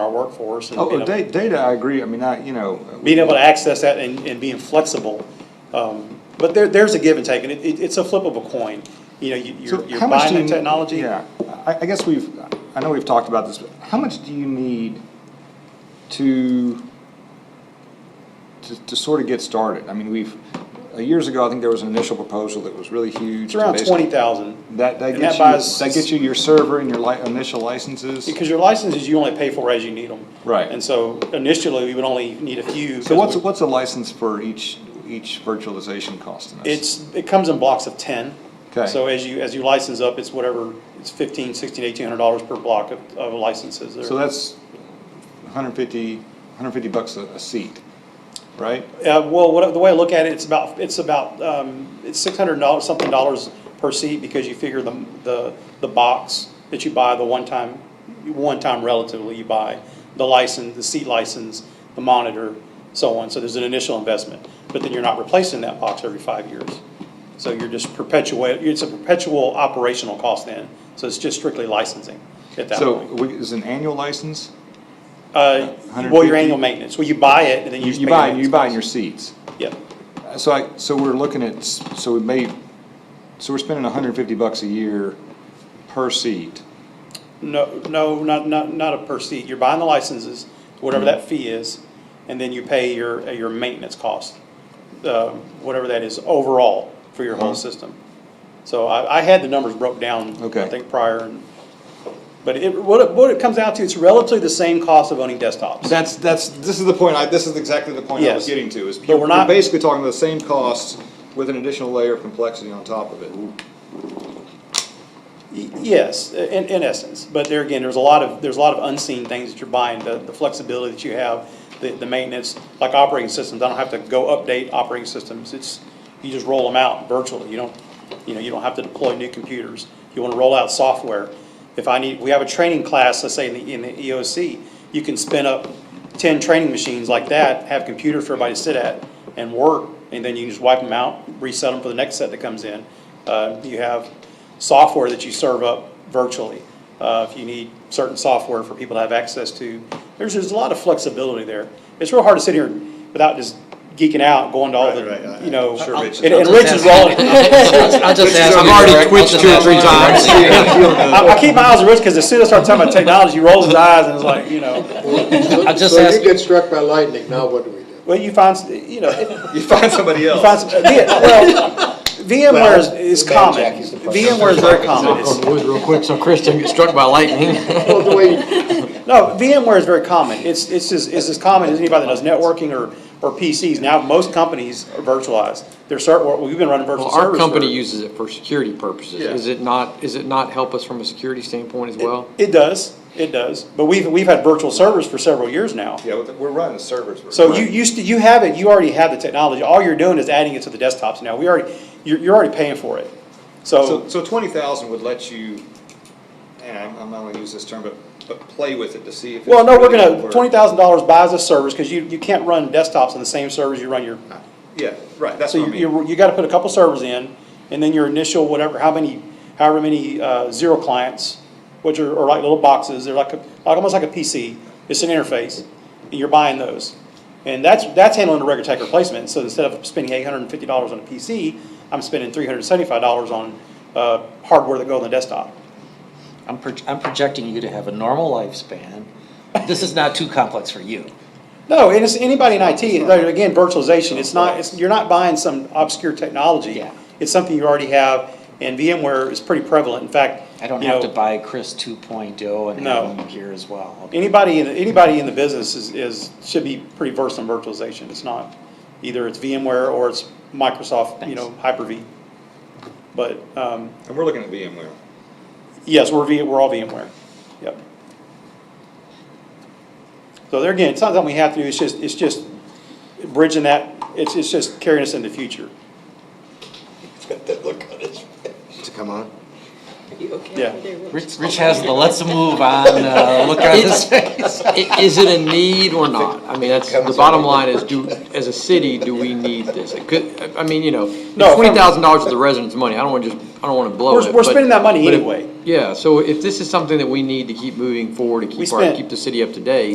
workforce. and Oh, being uh, able- da- data, I agree, I mean, I, you know, uh, Being able to access that and, and being flexible. Um, But there, there's a give and take, and it, it- it's a flip of a coin. You know, you- so you're you're how much buying do you? the technology. Yeah, I, I guess we've, I know we've talked about this, but how much do you need to, to, to sort of get started? I mean, we've, uh, years ago, I think there was an initial proposal that was really huge. It's around based- twenty thousand. That, that And gets that you, buys- that gets you your server and your li- initial licenses? Because your licenses, you only pay for as you need them. Right. And so initially, we would only need a few. So 'cause what's, we- what's a license for each, each virtualization cost in us? It's, it comes in blocks of ten. Okay. So as you, as you license up, it's whatever, it's fifteen, sixteen, eighteen hundred dollars per block of, of licenses. So that's 150, 150 bucks a, a seat, right? Uh, well, what, the way I look at it, it's about, it's about, um, it's six hundred dollars, something dollars per seat because you figure the, the, the box that you buy, the one-time, one-time relatively you buy, the license, the seat license, the monitor, so on, so there's an initial investment. But then you're not replacing that box every five years. So you're just perpetuate, it's a perpetual operational cost then, so it's just strictly licensing at that So point. we- is an annual license? Uh, well, 150? your annual maintenance, well, you buy it and then you just You pay buy, it. you buy your seats. Yep, Uh, So I, so we're looking at, s- so we may, so we're spending 150 bucks a year per seat. No, no, not, not, not a per seat. You're buying the licenses, whatever that fee is, and then you pay your, uh, your maintenance cost, uh, whatever that is overall for your whole system. So I, I had the numbers broke down, Okay. I think prior, and- but it, what it, what it comes out to, it's relatively the same cost of owning desktops. That's, that's, this is the point, I, this is exactly the point I Yes. was getting to, is But you're we're you're not- basically talking about the same costs with an additional layer of complexity on top of it. Y- Yes, in, in essence, but there again, there's a lot of, there's a lot of unseen things that you're buying, the, the flexibility that you have, the, the maintenance, like operating systems, I don't have to go update operating systems, it's, you just roll them out virtually, you don't, you know, you don't have to deploy new computers. You wanna roll out software, if I need, we have a training class, let's say in the, in the EOC, you can spin up ten training machines like that, have computers for everybody to sit at and work, and then you can just wipe them out, reset them for the next set that comes in. Uh, you have software that you serve up virtually. Uh, If you need certain software for people to have access to, there's, there's a lot of flexibility there. It's real hard to sit here without just geeking out, going to all Right, right, the, I- you know. I'm sure Rich is- And and Rich is rolling, I'll just ask. I've already twitched two or three times. I I keep my eyes on Rich because as soon as I start talking about technology, he rolls his eyes and is like, you know, I'll just So ask, you get struck by lightning, now what do we do? well, you find, s- you know, it- You find somebody else. You find some- uh, V- well, VMware is- is Well, the bad common. jack is the first. VMware is very common. It's- wood real quick, so Chris doesn't get struck by lightning. Well, the way, No, VMware is very common. It's, it's as, it's as common as anybody that does networking or, or PCs. Now, most companies are virtualized. They're cert, well, we've been running virtual Well, servers. our for- company uses it for security purposes. Yeah. Is it not, is it not help us from a security standpoint as well? It does, it does. But we've, we've had virtual servers for several years now. Yeah, we're- we're running servers. we're- So you, you, st- you have it, you already have the technology. All you're doing is adding it to the desktops now. We already, you're, you're already paying for it. So, So, so twenty thousand would let you, and I'm, I'm not gonna use this term, but, but play with it to see if. it's well, no, we're really gonna, work. twenty thousand dollars buys us servers, because you, you can't run desktops on the same servers you run your Yeah, right, that's So what I you, mean. you, you gotta put a couple servers in, and then your initial whatever, how many, however many, uh, zero clients, which are, are like little boxes, they're like, a- like, almost like a PC, it's an interface, and you're buying those. And that's, that's handling the regular tech replacement, so instead of spending eight hundred and fifty dollars on a PC, I'm spending three hundred and seventy-five dollars on, uh, hardware that go on the desktop. I'm, proj- I'm projecting you to have a normal lifespan. This is not too complex for you. No, and it's anybody in IT, like, again, virtualization, it's not, it's, you're not buying some obscure technology. Yeah. It's something you already have, and VMware is pretty prevalent, in fact. I don't you have to know, buy Chris 2.0 and No. have him here as well. Anybody, in anybody in the business is, is, should be pretty versed in virtualization, it's not, either it's VMware or it's Microsoft, you know, Hyper-V. But, um, And we're looking at VMware. yes, we're V, we're all VMware, yep. So there again, it's not something we have to do, it's just, it's just bridging that, it's, it's just carrying us in the future, to come on? You okay? Yeah. They were- Rich, Rich has the let's move on uh, look on his face. I- Is it a need or not? I mean, that's, the bottom line is, do, as a city, do we need this? It could, I mean, you know, No, if I'm- twenty thousand dollars of the residents' money, I don't wanna just, I don't wanna blow We're- it. we're but- spending that money but if- anyway. Yeah, so if this is something that we need to keep moving forward and We keep our, spent- keep the city up to date,